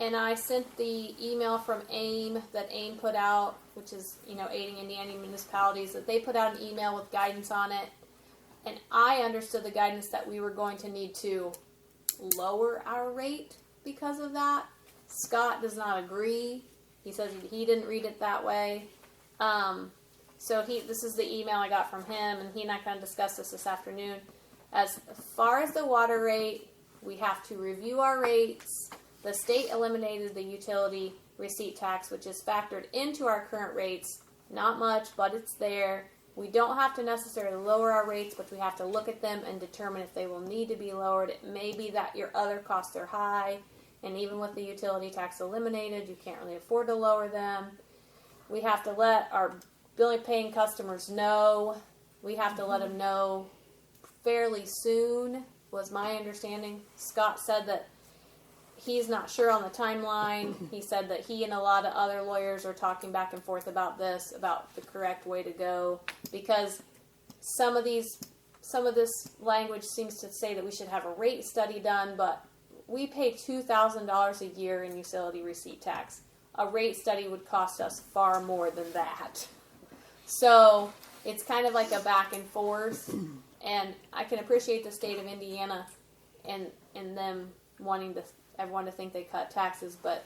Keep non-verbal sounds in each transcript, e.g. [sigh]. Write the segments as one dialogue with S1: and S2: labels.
S1: And I sent the email from AIM that AIM put out, which is, you know, aiding Indiana municipalities, that they put out an email with guidance on it. And I understood the guidance that we were going to need to lower our rate because of that. Scott does not agree. He says he didn't read it that way. Um, so he, this is the email I got from him, and he and I kind of discussed this this afternoon. As far as the water rate, we have to review our rates. The state eliminated the utility receipt tax, which is factored into our current rates. Not much, but it's there. We don't have to necessarily lower our rates, but we have to look at them and determine if they will need to be lowered. It may be that your other costs are high, and even with the utility tax eliminated, you can't really afford to lower them. We have to let our billing paying customers know. We have to let them know fairly soon, was my understanding. Scott said that he's not sure on the timeline. He said that he and a lot of other lawyers are talking back and forth about this, about the correct way to go, because some of these, some of this language seems to say that we should have a rate study done, but we pay two thousand dollars a year in utility receipt tax. A rate study would cost us far more than that. So it's kind of like a back and forth, and I can appreciate the state of Indiana and and them wanting to everyone to think they cut taxes, but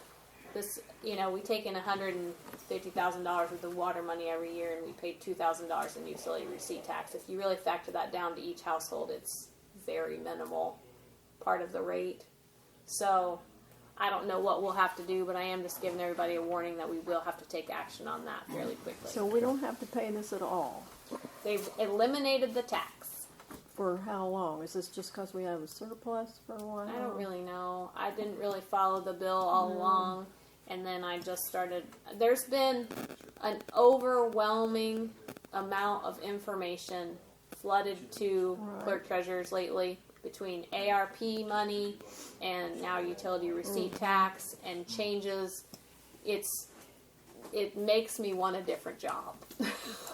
S1: this, you know, we take in hundred and fifty thousand dollars worth of water money every year, and we pay two thousand dollars in utility receipt tax. If you really factor that down to each household, it's very minimal part of the rate. So I don't know what we'll have to do, but I am just giving everybody a warning that we will have to take action on that fairly quickly.
S2: So we don't have to pay this at all.
S1: They've eliminated the tax.
S2: For how long? Is this just because we have a surplus for a while?
S1: I don't really know. I didn't really follow the bill all
S2: Mm.
S1: along, and then I just started. There's been an overwhelming amount of information flooded to
S2: Right.
S1: clerk treasurers lately between ARP money and now utility receipt tax and changes. It's it makes me want a different
S2: [laughs]
S1: job. [laughs]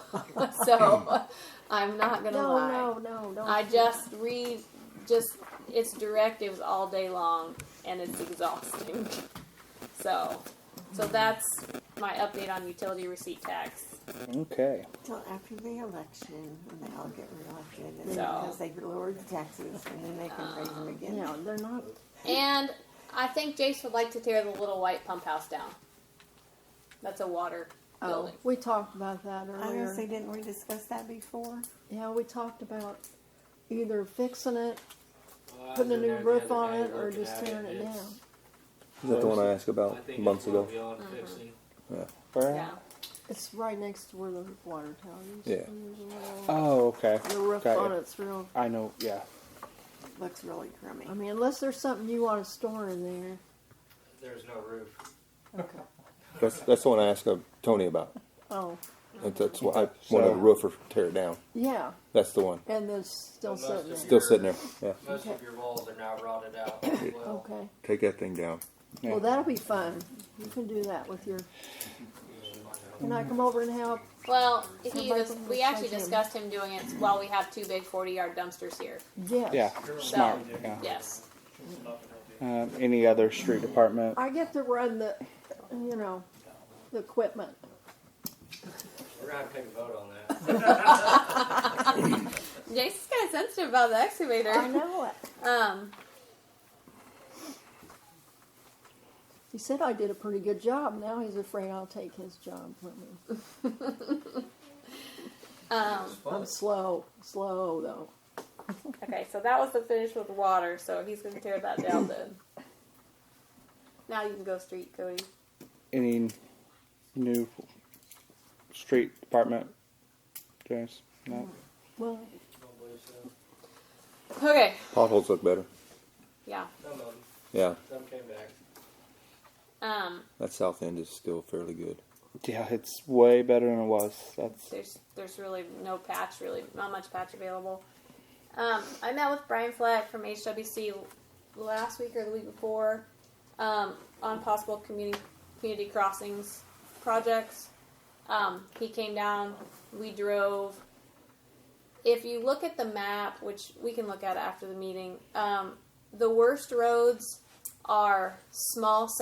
S1: so I'm not gonna
S2: No,
S1: lie.
S2: no, no, don't.
S1: I just read just its directives all day long, and it's exhausting. So, so that's my update on utility receipt tax.
S3: Okay.
S4: Till after the election, when they all get reelected, and
S1: So-
S4: because they lowered the taxes, and then they can raise them again.
S2: Yeah, they're not.
S1: And I think Jace would like to tear the little white pump house down. That's a water
S2: Oh,
S1: building.
S2: we talked about that
S4: I
S2: earlier.
S4: honestly didn't we discuss that before?
S2: Yeah, we talked about either fixing it,
S5: Well, I
S2: putting a
S5: was in
S2: new
S5: there the
S2: roof
S5: other
S2: on
S5: day
S2: it, or
S5: looking
S2: just
S5: at
S2: tearing it
S5: It's-
S2: down.
S3: Is that the one I asked
S5: I
S3: about
S5: think it's
S3: Oh, months
S5: gonna
S3: ago?
S5: be on
S2: Uh-huh.
S5: fixing.
S1: Yeah.
S2: it's right next to where the water tower used
S3: Yeah.
S2: to be.
S3: Oh, okay.
S2: The roof
S3: Got
S2: on
S3: ya.
S2: it's real.
S3: I know. Yeah.
S4: Looks really crummy.
S2: I mean, unless there's something you want to store in there.
S5: There's no roof.
S2: Okay.
S3: That's that's the one I asked uh, Tony about.
S2: Oh,
S3: That's, that's what I
S6: So-
S3: wanted a roofer to tear it down.
S2: yeah,
S3: That's the one.
S2: and then still
S5: Well, most
S2: sitting
S5: of
S2: there.
S3: Still sitting there. Yeah.
S5: Most of
S2: Okay.
S5: your walls are now rotted
S2: [coughs]
S5: out as well.
S2: Okay.
S3: Take that thing down.
S2: Well, that'll be fun. You can do that with your. Can I come over and help?
S1: Well, he
S2: Somebody
S1: dis-
S2: can
S1: we
S2: recycle
S1: actually
S2: them.
S1: discussed him doing it while we have two big 40 yard dumpsters here.
S2: Yes.
S6: Yeah, smart. Yeah.
S1: Yes.
S6: Um, any other street department?
S2: I get to run the, you know, the equipment.
S5: We're gonna have to take a vote on that.
S1: Jace is kind of sensitive about the excavator. [laughs]
S2: I know it.
S1: Um,
S2: He said I did a pretty good job. Now he's afraid I'll take his job from me.
S1: um,
S2: I'm slow, slow though.
S1: Okay, so that was the finish with water, so he's gonna tear that down then. Now you can go street, Cody.
S6: Any new street department? James? No.
S2: Well,
S5: Don't believe so.
S1: Okay.
S3: Potholes look better.
S1: Yeah.
S5: Some of them,
S3: Yeah.
S5: some came back.
S1: Um.
S3: That south end is still fairly good.
S6: Yeah, it's way better than it was. That's
S1: There's there's really no patch, really not much patch available. Um, I met with Brian Flack from HWC last week or the week before um, on possible community community crossings projects. Um, he came down. We drove. If you look at the map, which we can look at after the meeting, um, the worst roads are small